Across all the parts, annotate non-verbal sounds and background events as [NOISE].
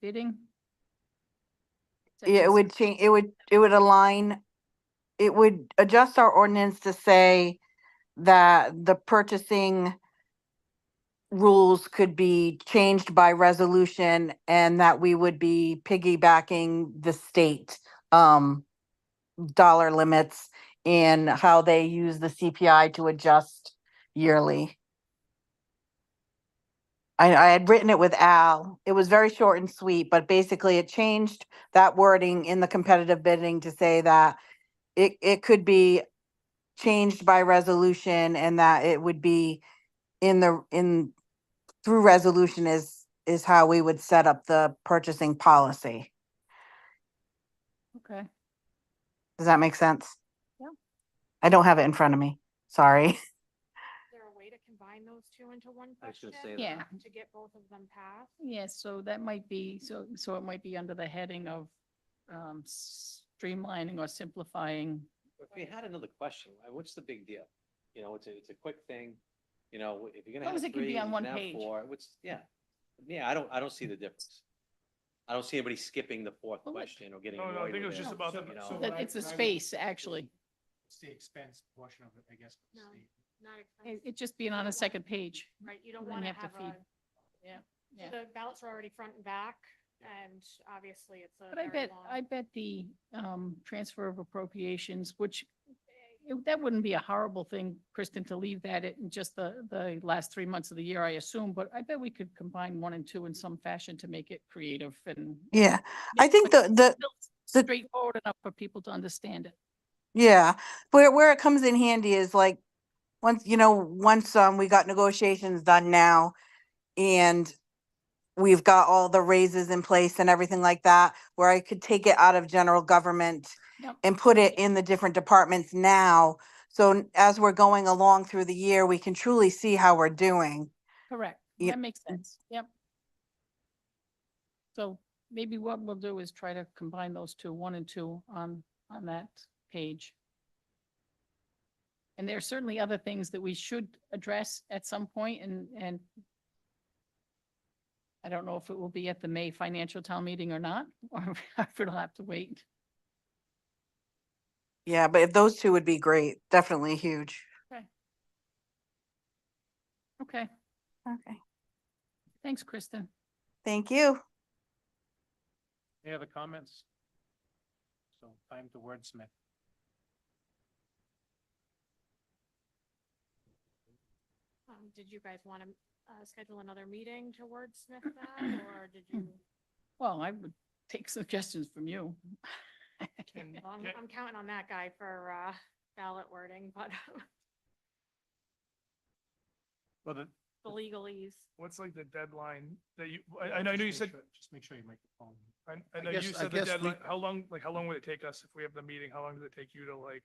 bidding? Yeah, it would change, it would, it would align, it would adjust our ordinance to say that the purchasing rules could be changed by resolution and that we would be piggybacking the state um dollar limits in how they use the CPI to adjust yearly. I, I had written it with Al. It was very short and sweet, but basically it changed that wording in the competitive bidding to say that it, it could be changed by resolution and that it would be in the, in, through resolution is, is how we would set up the purchasing policy. Okay, Does that make sense? Yeah. I don't have it in front of me. Sorry. Is there a way to combine those two into one I was question? gonna say that. Yeah. To get both of them passed? yes, so that might be, so, so it might be under the heading of um, streamlining or simplifying. If we had another question, uh, what's the big deal? You know, it's a, it's a quick thing, you know, if you're gonna long have as it can be three, on you one can have page. four, what's, yeah. Yeah, I don't, I don't see the difference. I don't see anybody skipping the fourth Well, it- question or getting No, no, I annoyed think it with was just about the- you know? so That It's the space, actually. It's the expense portion of it, I guess. No. Steve. Not It, expensive, it just being on a second page. right? You don't then want to you have have to a, Yeah. the ballots are already front and back and obviously it's a But I very bet, I long. bet the um, transfer of appropriations, which eh, it- that wouldn't be a horrible thing, Kristen, to leave that in just the, the last three months of the year, I assume, but I bet we could combine one and two in some fashion to make it creative and Yeah. [LAUGHS] I think but the, the, still the- Straightforward enough for people to understand it. Yeah, where where it comes in handy is like, once, you know, once um we got negotiations done now and we've got all the raises in place and everything like that, where I could take it out of general government Yep. and put it in the different departments now. So n- as we're going along through the year, we can truly see how we're doing. Correct. Yep. That makes sense. Yep. So maybe what we'll do is try to combine those two, one and two on, on that page. And there are certainly other things that we should address at some point and, and I don't know if it will be at the May financial town meeting or not, [LAUGHS] or if it'll have to wait. Yeah, but if those two would be great, definitely huge. Okay, Okay, thanks, Kristen. thank you. Any other comments? So time to wordsmith. Um, Did you guys want to, uh, schedule another meeting to wordsmith that or did you? Well, I would take suggestions from you. Can- Well, I'm, can- I'm counting on that guy for, uh, ballot wording, but [LAUGHS] Well, the, the legalese. What's like the deadline that you, I, I know I know you Just said, make sure- Just make sure you make the phone. I, I I know guess- you I said the guess we- deadline, how long, like, how long would it take us if we have the meeting? How long does it take you to like?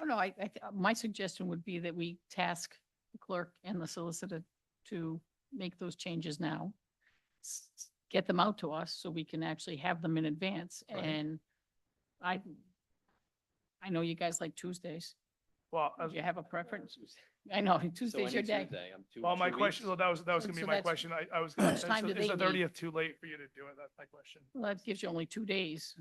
Oh, no, I, I, th- uh, my suggestion would be that we task the clerk and the solicitor to make those changes now. s- s- Get them out to us so we can actually have them in advance Right. and I, I know you guys like Tuesdays. Well, I Do was- you have a preference? uh, I know, So Tuesday's any your day. Tuesday, I'm two- well, my two question, weeks. well, that was, that was And gonna so be my that's- question. I, I was How gonna, much is time do the- is they the need? thirtieth too late for you to do it? That's my question. Well, that gives you only two days.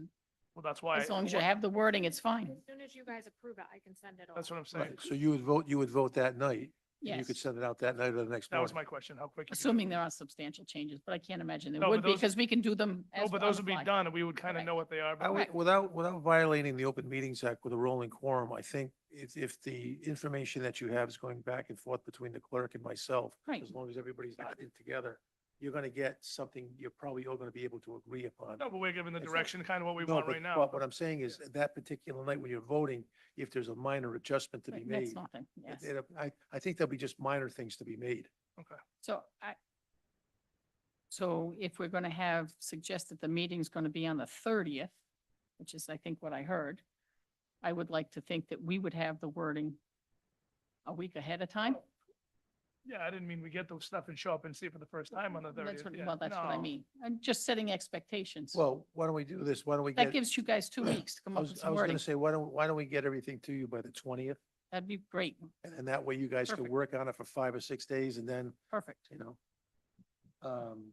Well, that's why. As long as you what- have the wording, it's fine. As soon as you guys approve it, I can send it over. [LAUGHS] That's what I'm saying. Right, so you would vote, you would vote that night? and You Yes. could send it out that night or the next That morning? was my question, how quick. you could do it. Assuming there are substantial changes, but I can't imagine No, there but would be those- because we can do them No, as. but on those the would be fly. done and we would kind Correct. of know what they are. I but- Right. would, without, without violating the Open Meetings Act with a rolling quorum, I think if, if the information that you have is going back and forth between the clerk and myself, Right. as long as everybody's not in together, you're gonna get something you're probably all gonna be able to agree upon. No, but we're given the It's not- direction, kind of what we No, want but- right now. But what I'm saying is, that particular night when you're voting, if there's a minor adjustment to be Right, That's made, nothing, yes. it- it- I, I think there'll be just minor things to be made. So I, so if we're going to have, suggest that the meeting's going to be on the thirtieth, which is, I think, what I heard, I would like to think that we would have the wording a week ahead of time. Yeah, I didn't mean we get the stuff and show up and see it for the first time on the That's thirtieth. what, well, that's what I mean. I'm just setting expectations. Well, why don't we do this? Why don't we get? That gives you guys two weeks to come I up was- with I some was wording. gonna say, why don't, why don't we get everything to you by the twentieth? That'd be great. And then that way you guys can Perfect. work on it for five or six days and then, Perfect. you know. Um,